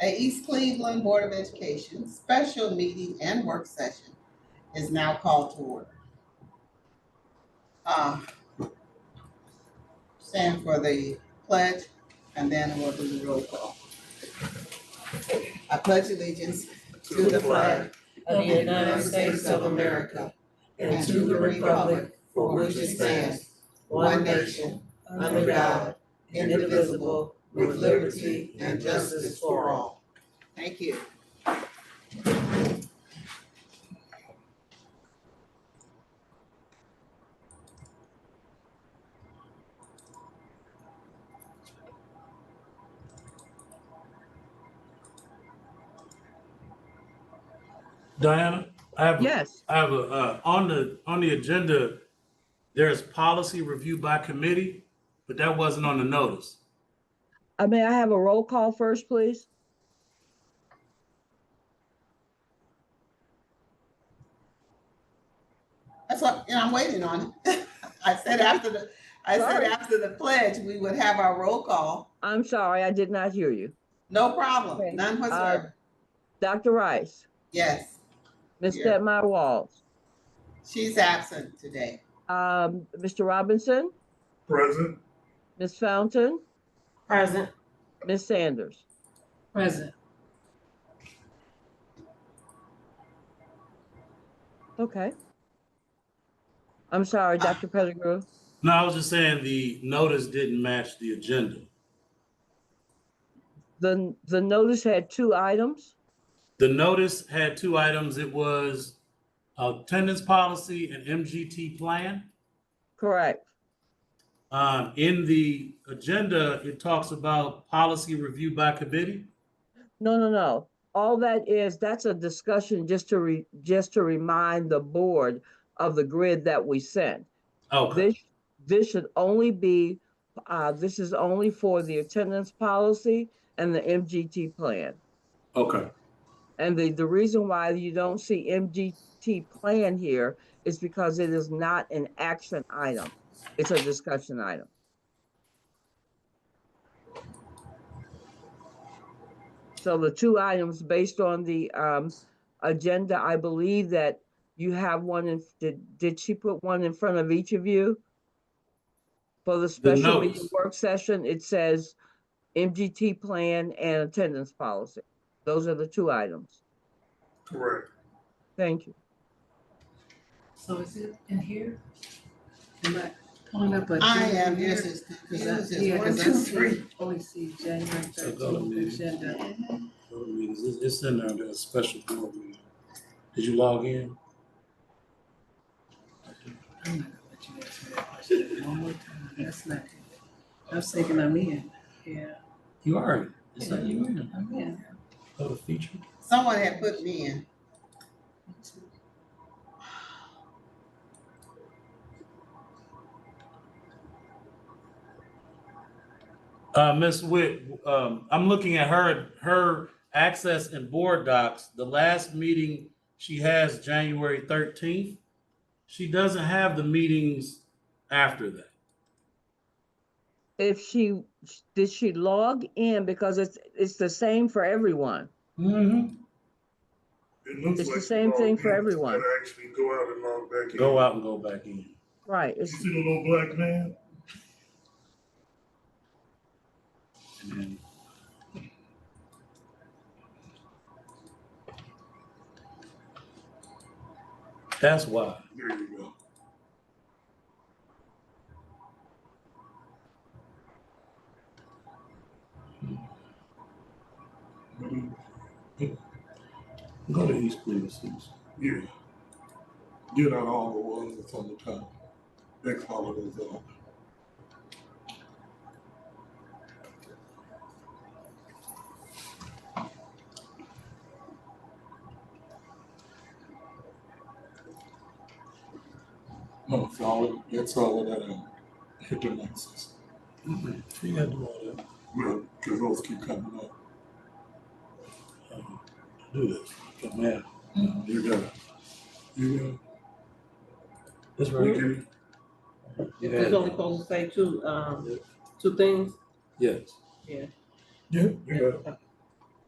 at East Cleveland Board of Education, special meeting and work session is now called to order. Uh, Stand for the pledge and then we'll do the roll call. I pledge allegiance to the flag of the United States of America and to the republic for which it stands, one nation, under God, indivisible, with liberty and justice for all. Thank you. Diana, I have, Yes, I have a, uh, on the, on the agenda, there's policy review by committee, but that wasn't on the notice. I may I have a roll call first, please? That's what, and I'm waiting on it. I said after the, I said Sorry. after the pledge, we would have our roll call. I'm sorry, I did not hear you. No Okay. Uh, problem, none whatsoever. Dr. Rice, Yes, Ms. Here. Stepmy Walls, she's absent today. um, Mr. Robinson, Present. Ms. Fountain, Present. Ms. Sanders. Present. Okay. I'm sorry, Dr. Pettigrew. No, I was just saying the notice didn't match the agenda. The, the notice had two items. The notice had two items. It was attendance policy and MGT plan. Correct. Um, in the agenda, it talks about policy review by committee. No, no, no. All that is, that's a discussion just to re, just to remind the board of the grid that we sent. Oh, Okay, This, this should only be, uh, this is only for the attendance policy and the MGT plan. okay, And the, the reason why you don't see MGT plan here is because it is not an action item. It's a discussion item. So the two items based on the, um, agenda, I believe that you have one in, did, did she put one in front of each of you? For the special meeting notes. work session, it says MGT plan and attendance policy. Those are the two items. correct. Thank you. So is it in here? Am I pulling up a? I agenda am, here? yes, it's Cause I, confused, yeah, it's one, cause I two, see, three. only see January So go to thirteenth meeting. agenda. It's it's in there, there's a special board meeting. Did you log in? I'm not gonna let you ask me that question one more time. That's not good. I was thinking I'm in. Yeah, You are. in. It's not you in. I'm in. Go to feature. Someone had put me in. Uh, Ms. Witt, um, I'm looking at her, her access and board docs. The last meeting she has January thirteenth. She doesn't have the meetings after that. If she, did she log in because it's, it's the same for everyone? Mm-hmm. It looks It's the like same all thing for humans everyone. gotta Actually go out and log back in. Go out and go back in. Right, You it's, see the little black man? And then- That's why. There you go. Go to East Cleveland. Susan. Yeah. Get out all the ones that's on the top. Next holidays off. No, it's all, it's all of that, uh, hit the nexus. Mm-hmm. You gotta do all that. Well, cause those keep coming up. Um, Do this. Get mad. You got it. You got it. This We right get here. it. You had He's it. only supposed to say two, um, two things? Yes. Yeah, you got it. Okay.